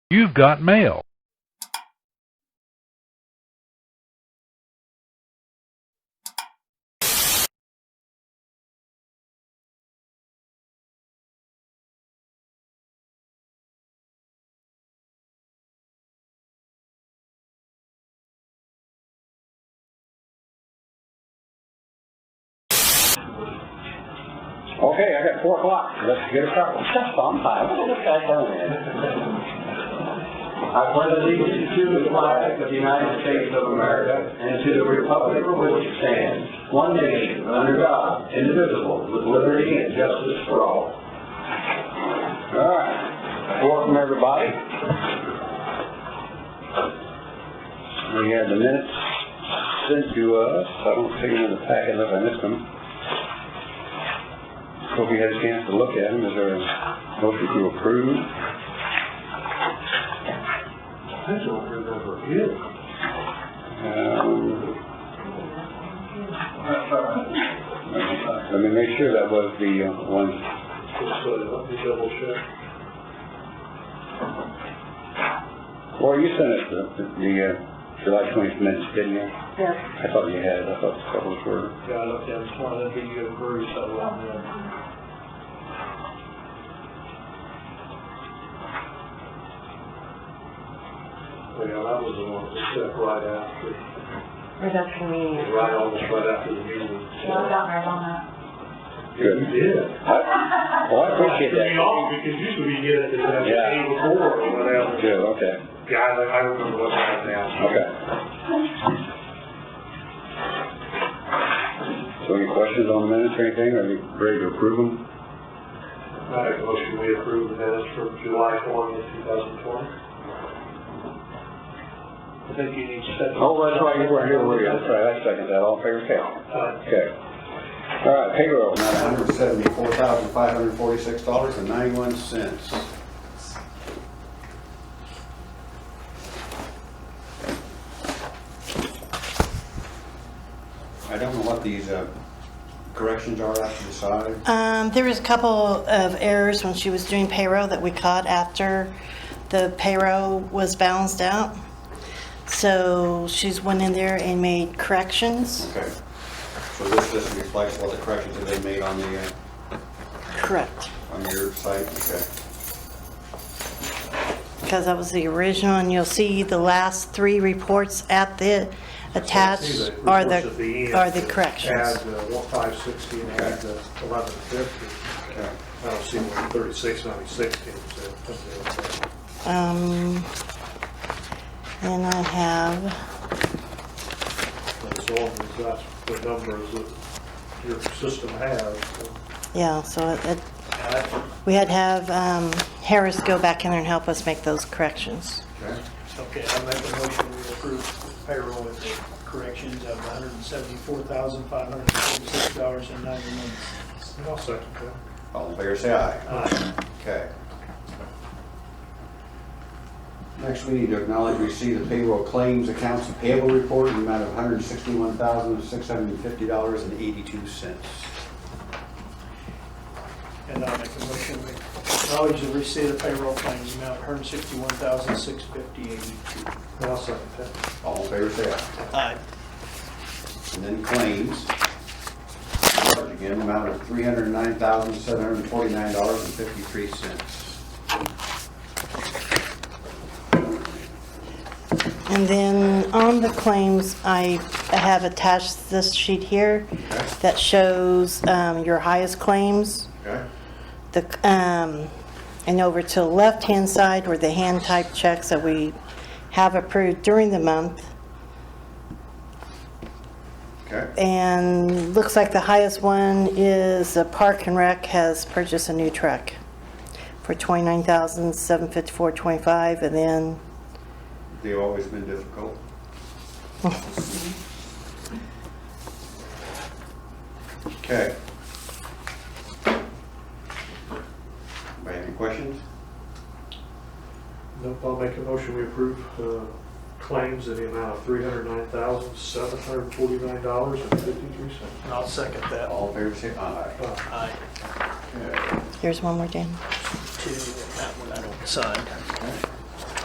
You've got mail. Okay, I got four o'clock, let's get it started. Just on time, look at that burn. I pledge allegiance to the flag of the United States of America and to the republic for which it stands, one nation, under God, indivisible, with liberty and justice for all. All right, welcome everybody. We have the minutes sent to us, I don't see them in the packet unless I missed them. Hope you had a chance to look at them. Is there a motion to approve? I don't remember it. Um, That's all right. Let me make sure that was the uh, one. Just, uh, let me double check. Well, you sent us the, the uh, July 20th minutes, didn't you? Yes. I thought you had, I thought those were, Yeah, I looked at it, one of the video breweries, so, um, yeah, that was the one that stuck right after, Reduction meeting. right almost right after the meeting. Well, down there on that. good. Yeah. I- Well, I appreciate It's that. off, because usually you get it the Yeah. day before or whatever. Good, okay, Yeah, I, I remember what that now. okay. So any questions on the minutes or anything? Are you ready to approve them? I make a motion, we approve the minutes from July twentieth, two thousand twenty. I think you need to set. Oh, that's right, you were here, were you? That's right, I second that. All in favor, say aye. Uh, Okay. All right, payroll, nine hundred seventy-four thousand, five hundred forty-six dollars and ninety-one cents. I don't know what these, uh, corrections are after the side. Um, there was a couple of errors when she was doing payroll that we caught after the payroll was balanced out. So she's went in there and made corrections. Okay. So this just reflects what the corrections have been made on the, uh, Correct, on your site, okay? because that was the original, and you'll see the last three reports at the attached are reports at the, end are the that corrections. Add the uh, one five sixty and add the eleven fifty. Okay. I don't see one thirty-six ninety-six came to. something else. Um, and I have, That's all, that's the numbers that your system has. so. yeah, so it, it- Uh, we had to have, um, Harris go back in there and help us make those corrections. Okay, I make a motion to approve payroll with the corrections of $174,546.91. And I'll second that. All in favor, say aye. Aye. Okay. Next, we need to acknowledge receipt of payroll claims accounts payable report in the amount of $161,650.82. And I make a motion to acknowledge the receipt of payroll claims amount $161,650.82. And I'll second that. All in favor, say aye. Aye. And then claims. Charge Again, amount of $309,749.53. And then on the claims, I have attached this sheet here Okay. that shows um, your highest claims. Okay? The, um, and over to the left-hand side were the hand-typed checks that we have approved during the month. Okay? And looks like the highest one is the Park and Rec has purchased a new truck for $29,754.25. And then They've always been difficult. Okay. Anybody have any questions? Nope, I'll make a motion, we approve uh, claims in the amount of three hundred nine thousand, seven hundred forty-nine dollars and fifty-three cents. And I'll second that. Uh, All in favor, say aye. Aye. Okay. here's one more, Jane. Two, and that one I don't sign. All